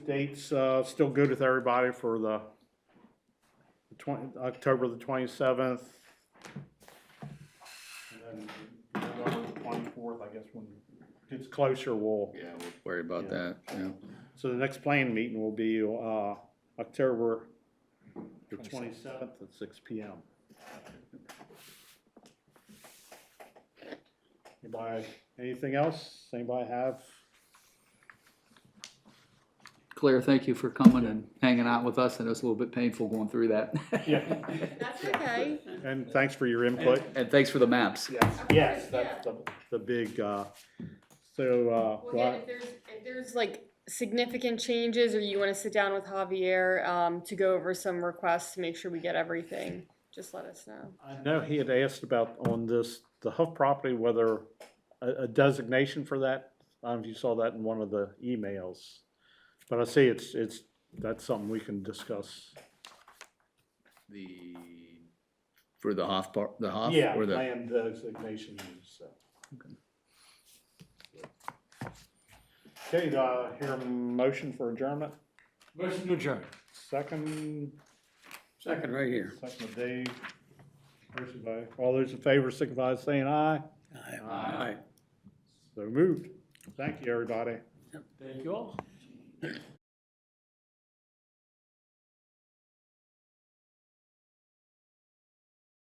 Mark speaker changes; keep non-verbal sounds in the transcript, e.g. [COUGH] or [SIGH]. Speaker 1: dates, uh, still good with everybody for the the twenty, October the twenty-seventh? And then November twenty-fourth, I guess, when it gets closer, we'll,
Speaker 2: Yeah, we'll worry about that, yeah.
Speaker 1: so the next planning meeting will be, uh, October the twenty-seventh at six P M. Anybody, anything else? Anybody have?
Speaker 2: Claire, thank you for coming and hanging out with us, and it was a little bit painful going through that.
Speaker 1: Yeah.
Speaker 3: That's okay.
Speaker 1: And thanks for your input.
Speaker 2: [LAUGHS] And thanks for the maps.
Speaker 1: Yes, that's the, the big, uh, so, uh,
Speaker 3: Well, again,
Speaker 1: well,
Speaker 3: if there's, if there's like significant changes or you wanna sit down with Javier, um, to go over some requests, to make sure we get everything, just let us know.
Speaker 1: I know he had asked about on this, the Huff property, whether a, a designation for that, I don't know if you saw that in one of the emails. But I see it's, it's, that's something we can discuss.
Speaker 2: The, for the Hoff part, the Hoff? or the-
Speaker 1: land designation, so. Okay, do I hear a motion for adjournment?
Speaker 4: Motion to adjourn.
Speaker 1: Second,
Speaker 4: Second, right here.
Speaker 1: second of Dave. Motion by- All those in favor signify by saying aye.
Speaker 4: Aye.
Speaker 1: So moved. Thank you, everybody.
Speaker 4: Thank you all.